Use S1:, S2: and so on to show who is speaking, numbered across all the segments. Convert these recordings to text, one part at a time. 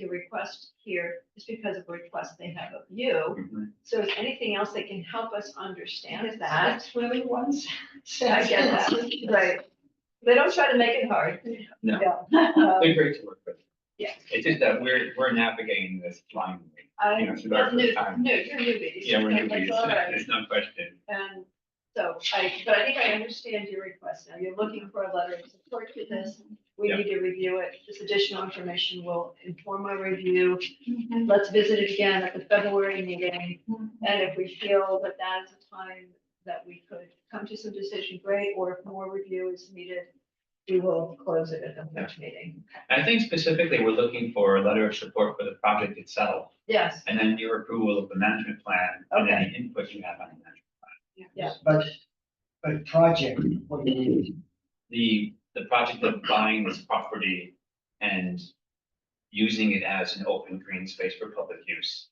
S1: the request here is because of a request they have of you. So is anything else that can help us understand that?
S2: That's really one sentence.
S1: I get that, right. They don't try to make it hard.
S3: No.
S2: Uh,
S3: They're great to work with.
S1: Yeah.
S3: It's just that we're, we're navigating this blindly.
S1: I,
S3: You know, should I
S1: no,
S3: put time?
S1: no, you're newbies.
S3: Yeah, we're
S1: That's
S3: newbies.
S1: all right.
S3: There's no question.
S1: And so I, but I think I understand your request now. You're looking for a letter of support to this. We
S3: Yeah.
S1: need to review it. This additional information will inform our review. Let's visit it again at the February meeting. And if we feel that that is a time that we could come to some decision, great, or if more review is needed, we will close it at the next meeting.
S3: I think specifically, we're looking for a letter of support for the project itself,
S1: Yes,
S3: and then your approval of the management plan, and any input you have on the management.
S1: yeah,
S4: But, but project, what it is,
S3: The, the project of buying this property and using it as an open green space for public use.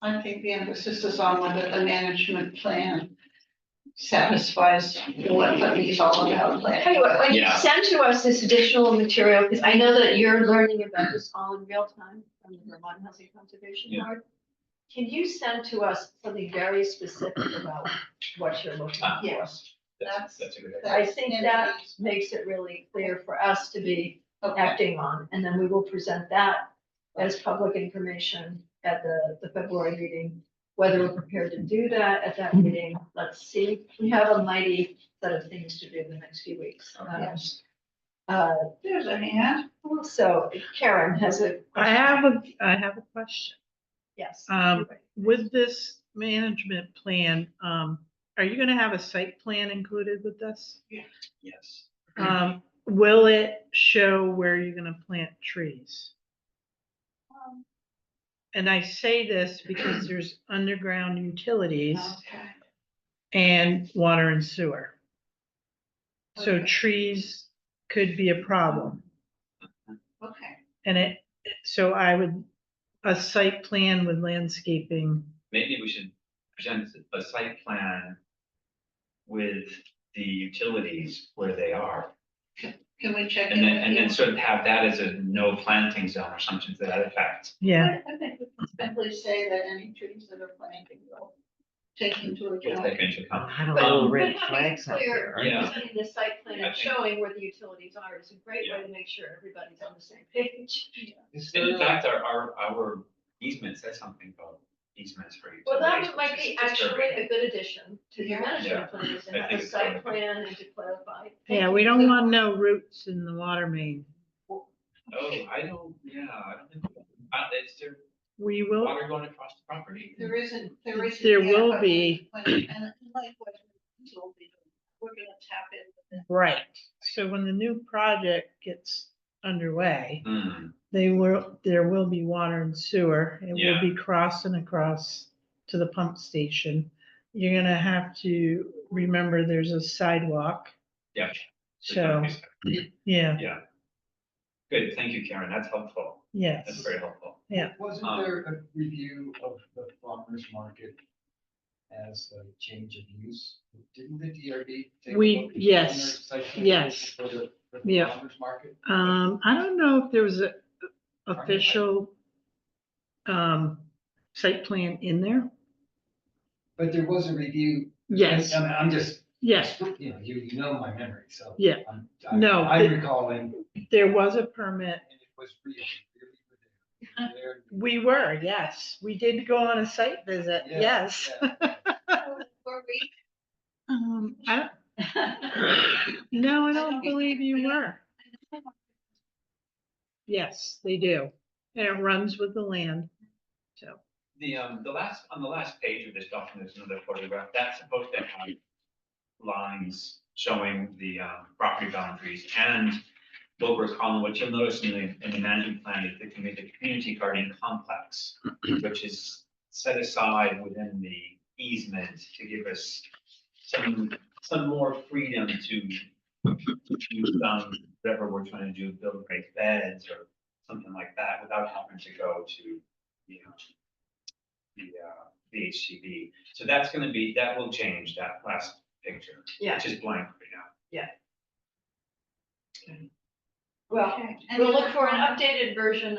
S2: I think the emphasis is on whether the management plan satisfies what Libby's all about. like-
S1: Tell you what, when you
S3: Yeah.
S1: send to us this additional material, because I know that you're learning about this all in real time from the Vermont Housing Conservation
S3: Yeah.
S1: Board. Can you send to us something very specific about what you're looking
S3: Ah,
S1: for?
S3: That's, that's a good idea.
S1: I think that makes it really clear for us to be
S2: Okay.
S1: acting on, and then we will present that as public information at the, the February meeting. Whether we're prepared to do that at that meeting, let's see. We have a mighty set of things to do in the next few weeks. Um,
S2: Oh, Yes.
S1: Uh,
S2: There's a hand.
S1: so Karen has a.
S5: I have a, I have a question.
S1: Yes.
S5: Um, with this management plan, um, are you gonna have a site plan included with this?
S3: Yes.
S5: Um, will it show where you're gonna plant trees? And I say this because there's underground utilities
S2: Okay.
S5: and water and sewer. So
S2: Okay.
S5: trees could be a problem.
S2: Okay.
S5: And it, so I would, a site plan with landscaping.
S3: maybe we should present a site plan with the utilities where they are.
S2: Can we check in?
S3: And then, and then
S2: with
S3: sort of have that as a no planting zone or something to that effect.
S2: you?
S5: Yeah,
S2: I I think we can simply say that any trees that are planted will take into
S3: We'll
S2: account.
S3: take into account.
S4: Oh, I don't
S1: But-
S4: know,
S3: Um,
S4: red
S1: but having
S4: flags out
S1: clear-
S4: there. aren't
S3: Yeah.
S1: In the site plan
S3: I
S1: and
S3: think-
S1: showing where the utilities are is a great way to make sure everybody's on the same page.
S4: there? Is
S3: And in
S4: there-
S3: fact, our, our, our easement says something about easements for utilities.
S1: Well, that might
S3: which is
S1: be actually
S3: disturbing.
S1: a good addition to the
S2: Yeah.
S1: management plan, is to
S3: I
S1: have
S3: think
S1: a
S3: it's
S1: site
S3: fine.
S1: plan and to clarify.
S5: yeah, we don't want no roots in the water main.
S3: Oh, I don't, yeah, I don't think, uh, is there
S5: We will,
S3: water going across the property?
S2: There isn't, there isn't.
S5: There
S2: yet,
S5: will
S2: but-
S5: be.
S2: And likewise, we'll be- we're gonna tap in.
S5: right, so when the new project gets underway,
S3: Hmm,
S5: they will, there will be water and sewer. It will
S3: Yeah.
S5: be crossing across to the pump station. You're gonna have to remember there's a sidewalk,
S3: yeah.
S5: so, yeah,
S3: Yeah. Good, thank you, Karen, that's helpful, that's
S5: yes.
S3: very helpful.
S4: Wasn't
S3: Um,
S4: there a review of the farmer's market as a change of use? Didn't the DRB take? a
S5: We-
S4: look at the
S5: yes,
S4: owner's site plan
S5: yes.
S4: For the, for the
S5: Yeah.
S4: farmer's market?
S5: Um, I don't know if there was a official um, site plan in there.
S4: But there was a review.
S5: Yes,
S4: I'm, I'm just.
S5: yes,
S4: You know, you you know my memory, so.
S5: Yeah.
S4: I'm- I'm-
S5: No,
S4: I'm
S5: but-
S4: recalling, and
S5: there was a permit.
S4: it was real, really good. There-
S5: We were, yes, we did go on a site visit,
S4: Yeah,
S5: yes.
S4: yeah.
S2: Were we-
S5: Um, I don't, no, I don't believe you were. Yes, they do. And it runs with the land, so.
S3: The, um, the last, on the last page of this document, there's another photograph, that's supposed to have lines showing the, um, property boundaries and what we're calling, what you'll notice in the, in the management plan is the community, the community garden complex, which is set aside within the easement to give us some, some more freedom to use, um, whatever we're trying to do, build great beds or something like that, without having to go to, you know, the uh, VHCB. So that's gonna be, that will change that last picture,
S1: Yeah,
S3: which is blank right now.
S1: well,
S2: Okay.
S1: we'll look for an updated version